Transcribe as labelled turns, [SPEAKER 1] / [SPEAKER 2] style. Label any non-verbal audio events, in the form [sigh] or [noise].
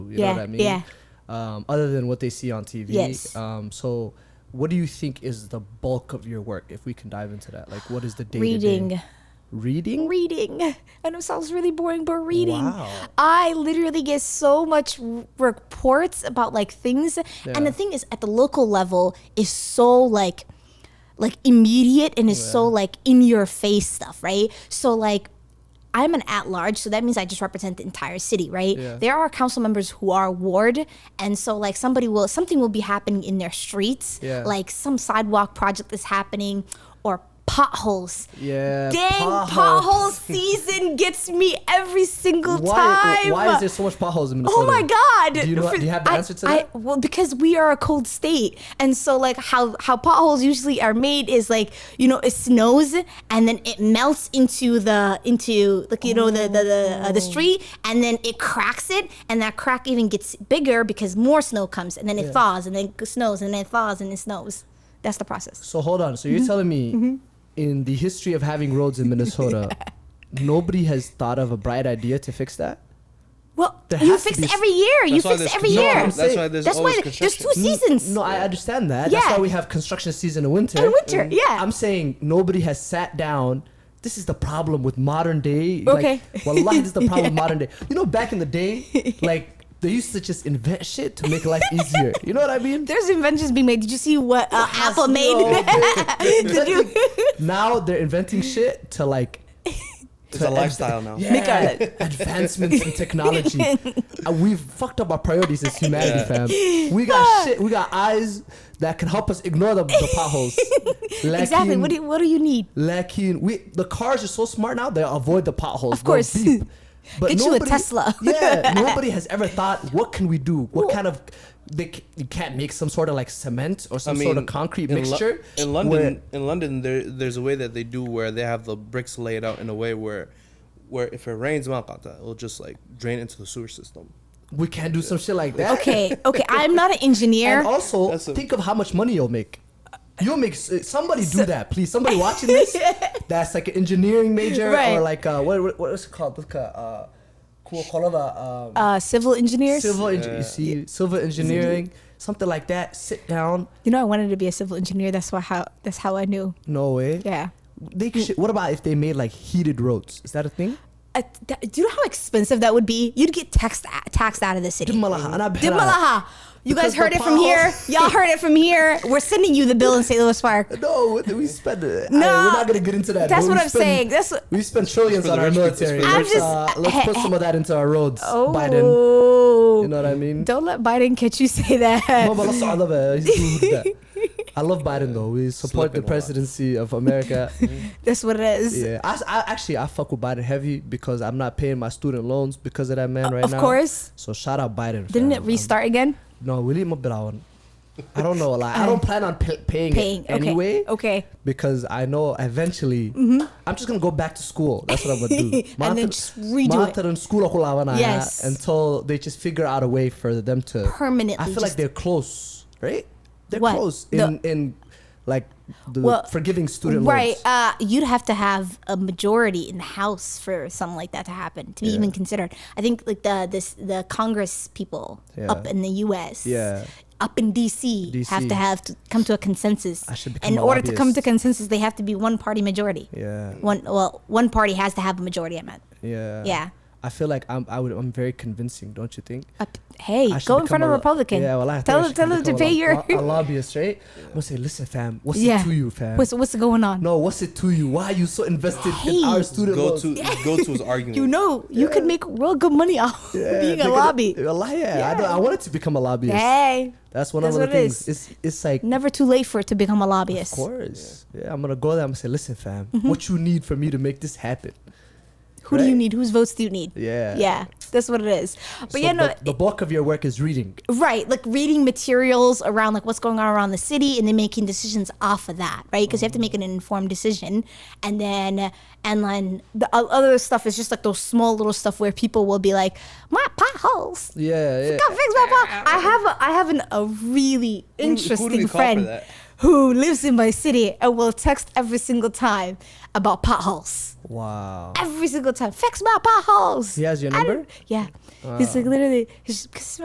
[SPEAKER 1] You
[SPEAKER 2] yeah,
[SPEAKER 1] know what I mean?
[SPEAKER 2] yeah.
[SPEAKER 1] Um, other than what they see on TV.
[SPEAKER 2] Yes.
[SPEAKER 1] Um, so, what do you think is the bulk of your work? If we can dive into that, like, what is the day
[SPEAKER 2] Reading.
[SPEAKER 1] Reading.
[SPEAKER 2] Reading. I know it sounds really boring, but reading.
[SPEAKER 1] Wow.
[SPEAKER 2] I literally get so much r- reports about like things, and the
[SPEAKER 1] Yeah.
[SPEAKER 2] thing is, at the local level, is so like, like immediate and is so like in your face stuff, right? So like. I'm an at large, so that means I just represent the entire city, right?
[SPEAKER 1] Yeah.
[SPEAKER 2] There are council members who are ward, and so like somebody will something will be happening in their streets,
[SPEAKER 1] Yeah.
[SPEAKER 2] like some sidewalk project is happening, or potholes.
[SPEAKER 1] Yeah.
[SPEAKER 2] Dang,
[SPEAKER 1] potholes.
[SPEAKER 2] pothole season gets me every single
[SPEAKER 1] Why,
[SPEAKER 2] time.
[SPEAKER 1] why is there so much potholes in Minnesota?
[SPEAKER 2] Oh my god!
[SPEAKER 1] Do you, know, do you have the
[SPEAKER 2] I-
[SPEAKER 1] answer to
[SPEAKER 2] I-
[SPEAKER 1] that?
[SPEAKER 2] well, because we are a cold state, and so like how how potholes usually are made is like you know it snows and then it melts into the into like you know the the the, uh, the
[SPEAKER 1] Oh.
[SPEAKER 2] street, and then it cracks it, and that crack even gets bigger because more snow comes, and then it
[SPEAKER 1] Yeah.
[SPEAKER 2] thaws, and then it snows, and then it thaws, and it snows. That's the process.
[SPEAKER 1] So hold on. So
[SPEAKER 2] Mm-hmm.
[SPEAKER 1] you're telling me, in the history of having roads in
[SPEAKER 2] [laughs]
[SPEAKER 1] Minnesota, nobody has thought of a bright idea to fix that.
[SPEAKER 2] Well,
[SPEAKER 1] There
[SPEAKER 2] you
[SPEAKER 1] has to
[SPEAKER 2] fix
[SPEAKER 1] be
[SPEAKER 2] it
[SPEAKER 1] s-
[SPEAKER 2] every year. You
[SPEAKER 3] That's why
[SPEAKER 2] fix it
[SPEAKER 3] there's
[SPEAKER 2] every
[SPEAKER 3] no,
[SPEAKER 2] year.
[SPEAKER 3] That's why there's
[SPEAKER 2] That's
[SPEAKER 3] always
[SPEAKER 2] why there's
[SPEAKER 3] construction.
[SPEAKER 2] two seasons.
[SPEAKER 1] Mm, No, I understand that. That's
[SPEAKER 2] Yeah.
[SPEAKER 1] why we have construction season in winter. Mm.
[SPEAKER 2] In winter, Mhm. yeah.
[SPEAKER 1] I'm saying nobody has sat down. This is the problem with modern day.
[SPEAKER 2] Okay.
[SPEAKER 1] Like, wallahi, this is
[SPEAKER 2] [laughs]
[SPEAKER 1] the problem with modern day. You know, back in the day, like they used to just invent shit to make life
[SPEAKER 2] [laughs]
[SPEAKER 1] easier. You know what I mean?
[SPEAKER 2] There's inventions being made. Did you see what uh, Apple made? Did you
[SPEAKER 1] [laughs] now they're inventing shit to like
[SPEAKER 3] It's a lifestyle now.
[SPEAKER 1] Yeah. Advancements in
[SPEAKER 2] [laughs]
[SPEAKER 1] technology. Uh, we've fucked up our priorities as humanity,
[SPEAKER 3] Yeah.
[SPEAKER 1] fam.
[SPEAKER 2] [laughs]
[SPEAKER 1] We got shit. We got eyes that can help us ignore the, the
[SPEAKER 2] [laughs]
[SPEAKER 1] potholes.
[SPEAKER 2] [laughs] exactly?
[SPEAKER 1] Lacking-
[SPEAKER 2] What do you, what do you need?
[SPEAKER 1] lacking. We the cars are so smart now; they avoid the potholes.
[SPEAKER 2] Of course.
[SPEAKER 1] They'll
[SPEAKER 2] [laughs]
[SPEAKER 1] beep. But
[SPEAKER 2] Get you a Tesla.
[SPEAKER 1] [laughs]
[SPEAKER 2] [laughs]
[SPEAKER 1] yeah, nobody has ever thought, what can we do? What kind of they c- you can't make some sort of like cement or some sort of concrete
[SPEAKER 3] in Lo-
[SPEAKER 1] mixture
[SPEAKER 3] in London, in London, there there's a way that they do where they have the bricks laid out in a way where, where if it rains, maqata, it'll just like drain into the sewer system.
[SPEAKER 1] Where we can't do some shit like that.
[SPEAKER 2] Okay, okay. I'm not an engineer.
[SPEAKER 1] And also,
[SPEAKER 3] That's a-
[SPEAKER 1] think of how much money you'll make. You'll make s- uh, somebody do that, please. Somebody watching
[SPEAKER 2] [laughs]
[SPEAKER 1] this that's like an engineering major
[SPEAKER 2] Right.
[SPEAKER 1] or like uh, what what what is it called? Like, uh, cool, call it a, um,
[SPEAKER 2] uh, civil engineers.
[SPEAKER 1] civil. engi- you see, civil engineering, something like that. Sit down.
[SPEAKER 2] You know, I wanted to be a civil engineer. That's why how that's how I knew.
[SPEAKER 1] No way.
[SPEAKER 2] Yeah. Hmm.
[SPEAKER 1] They should, what about if they made like heated roads? Is that a thing?
[SPEAKER 2] Uh, th- do you know how expensive that would be? You'd get taxed uh, taxed out of the city.
[SPEAKER 1] Dimalaha, and I bet
[SPEAKER 2] Dimalaha. You
[SPEAKER 1] Because
[SPEAKER 2] guys heard
[SPEAKER 1] the
[SPEAKER 2] it from here.
[SPEAKER 1] potholes-
[SPEAKER 2] Y'all heard it from here. We're sending you the bill in St. Louis Park.
[SPEAKER 1] I- No, what do we spend. No,
[SPEAKER 2] [laughs] No,
[SPEAKER 1] we're not gonna get into that.
[SPEAKER 2] that's
[SPEAKER 1] but
[SPEAKER 2] what
[SPEAKER 1] we
[SPEAKER 2] I'm
[SPEAKER 1] spend-
[SPEAKER 2] saying. That's what-
[SPEAKER 1] we spend trillions
[SPEAKER 3] It's for
[SPEAKER 1] on
[SPEAKER 3] the
[SPEAKER 1] our
[SPEAKER 3] rich people, it's
[SPEAKER 1] military.
[SPEAKER 3] for the
[SPEAKER 2] I'm
[SPEAKER 1] Let's,
[SPEAKER 2] just-
[SPEAKER 1] uh, let's put some of that into our roads, Biden.
[SPEAKER 2] Oh.
[SPEAKER 1] You know what I
[SPEAKER 2] [laughs]
[SPEAKER 1] mean?
[SPEAKER 2] Don't let Biden catch you
[SPEAKER 1] [laughs]
[SPEAKER 2] say that.
[SPEAKER 1] No, but also I love it. He's good with that. I love Biden though. We support
[SPEAKER 3] Slipping
[SPEAKER 1] the
[SPEAKER 3] a lot.
[SPEAKER 1] presidency of
[SPEAKER 3] [laughs]
[SPEAKER 1] America.
[SPEAKER 2] That's what it is.
[SPEAKER 1] yeah, I, I actually I fuck with Biden heavy because I'm not paying my student loans because of that man right
[SPEAKER 2] of
[SPEAKER 1] now.
[SPEAKER 2] course.
[SPEAKER 1] So shout out Biden.
[SPEAKER 2] Didn't
[SPEAKER 1] fam.
[SPEAKER 2] it
[SPEAKER 1] I'm-
[SPEAKER 2] restart again?
[SPEAKER 1] No, William Brown. I don't know. Like I don't plan on pay- paying,
[SPEAKER 2] Paying.
[SPEAKER 1] it anyway.
[SPEAKER 2] Okay. Oh. Okay.
[SPEAKER 1] Because I know eventually I'm just gonna go back to school. That's what I'm gonna do.
[SPEAKER 2] Mm-hmm. [laughs] And then
[SPEAKER 1] Matar-
[SPEAKER 2] just redo it.
[SPEAKER 1] matar and school ako lawan na yan
[SPEAKER 2] Yes.
[SPEAKER 1] Until they just figure out a way for them to
[SPEAKER 2] Permanently
[SPEAKER 1] I feel
[SPEAKER 2] just-
[SPEAKER 1] like they're close, right? They're
[SPEAKER 2] What?
[SPEAKER 1] close
[SPEAKER 2] The-
[SPEAKER 1] in in like the
[SPEAKER 2] Well,
[SPEAKER 1] forgiving student
[SPEAKER 2] right.
[SPEAKER 1] loans.
[SPEAKER 2] Uh, you'd have to have a majority in the House for something like that to happen to be even considered. I think like the this the Congress people
[SPEAKER 1] Yeah.
[SPEAKER 2] up in the U.S.
[SPEAKER 1] Yeah.
[SPEAKER 2] Up in DC,
[SPEAKER 1] DC.
[SPEAKER 2] have to have to come to a consensus.
[SPEAKER 1] I should become
[SPEAKER 2] in
[SPEAKER 1] a
[SPEAKER 2] order to come
[SPEAKER 1] lobbyist.
[SPEAKER 2] to consensus, they have to be one party majority.
[SPEAKER 1] Yeah.
[SPEAKER 2] One well, one party has to have a majority. I meant.
[SPEAKER 1] Yeah.
[SPEAKER 2] Yeah.
[SPEAKER 1] I feel like I'm I would I'm very convincing, don't you think?
[SPEAKER 2] Up, hey,
[SPEAKER 1] I should
[SPEAKER 2] go
[SPEAKER 1] become
[SPEAKER 2] in front of
[SPEAKER 1] a-
[SPEAKER 2] a Republican.
[SPEAKER 1] Yeah, well, I think I
[SPEAKER 2] tell them
[SPEAKER 1] should
[SPEAKER 2] tell them to
[SPEAKER 1] become a
[SPEAKER 2] pay
[SPEAKER 1] lo-
[SPEAKER 2] your. [laughs]
[SPEAKER 1] lo- a lobbyist, right? I'm gonna say, listen, fam, what's
[SPEAKER 2] yeah.
[SPEAKER 1] it to you, fam?
[SPEAKER 2] What's what's going on?
[SPEAKER 1] no, what's it to you? Why are you so invested in
[SPEAKER 2] Hey.
[SPEAKER 1] our student
[SPEAKER 3] Go
[SPEAKER 1] loans?
[SPEAKER 3] to go to is arguing.
[SPEAKER 2] You know, you could make real good money [laughs] off of
[SPEAKER 1] Yeah,
[SPEAKER 2] being a
[SPEAKER 1] because-
[SPEAKER 2] lobby.
[SPEAKER 1] a li- yeah, I, don't, I wanted to become a lobbyist.
[SPEAKER 2] Hey,
[SPEAKER 1] That's one
[SPEAKER 2] that's
[SPEAKER 1] of the
[SPEAKER 2] what it
[SPEAKER 1] things.
[SPEAKER 2] is.
[SPEAKER 1] It's it's like,
[SPEAKER 2] never too late for it to become a
[SPEAKER 1] of
[SPEAKER 2] lobbyist.
[SPEAKER 1] course. Yeah. I'm gonna go there. I'm gonna say, listen, fam,
[SPEAKER 2] Mm-hmm.
[SPEAKER 1] what you need for me to make this happen?
[SPEAKER 2] Who do you
[SPEAKER 1] Right.
[SPEAKER 2] need? Whose votes do you need?
[SPEAKER 1] Yeah.
[SPEAKER 2] Yeah, that's what it is. But
[SPEAKER 1] So
[SPEAKER 2] you know,
[SPEAKER 1] the, the bulk of your work is reading.
[SPEAKER 2] right? Like reading materials around like what's going on around the city, and then making decisions off of that, right? Because you have to
[SPEAKER 1] Mm-hmm.
[SPEAKER 2] make an informed decision, and then and then the o- other stuff is just like those small little stuff where people will be like, my potholes.
[SPEAKER 1] Yeah, yeah.
[SPEAKER 2] Go fix my pot. I have a, I have an, a really interesting
[SPEAKER 3] we call for
[SPEAKER 2] friend
[SPEAKER 3] that?
[SPEAKER 2] who lives in my city and will text every single time about potholes.
[SPEAKER 1] Wow.
[SPEAKER 2] Every single time, fix my potholes.
[SPEAKER 1] He has your
[SPEAKER 2] I
[SPEAKER 1] number?
[SPEAKER 2] don't- Yeah, he's like literally. He's just,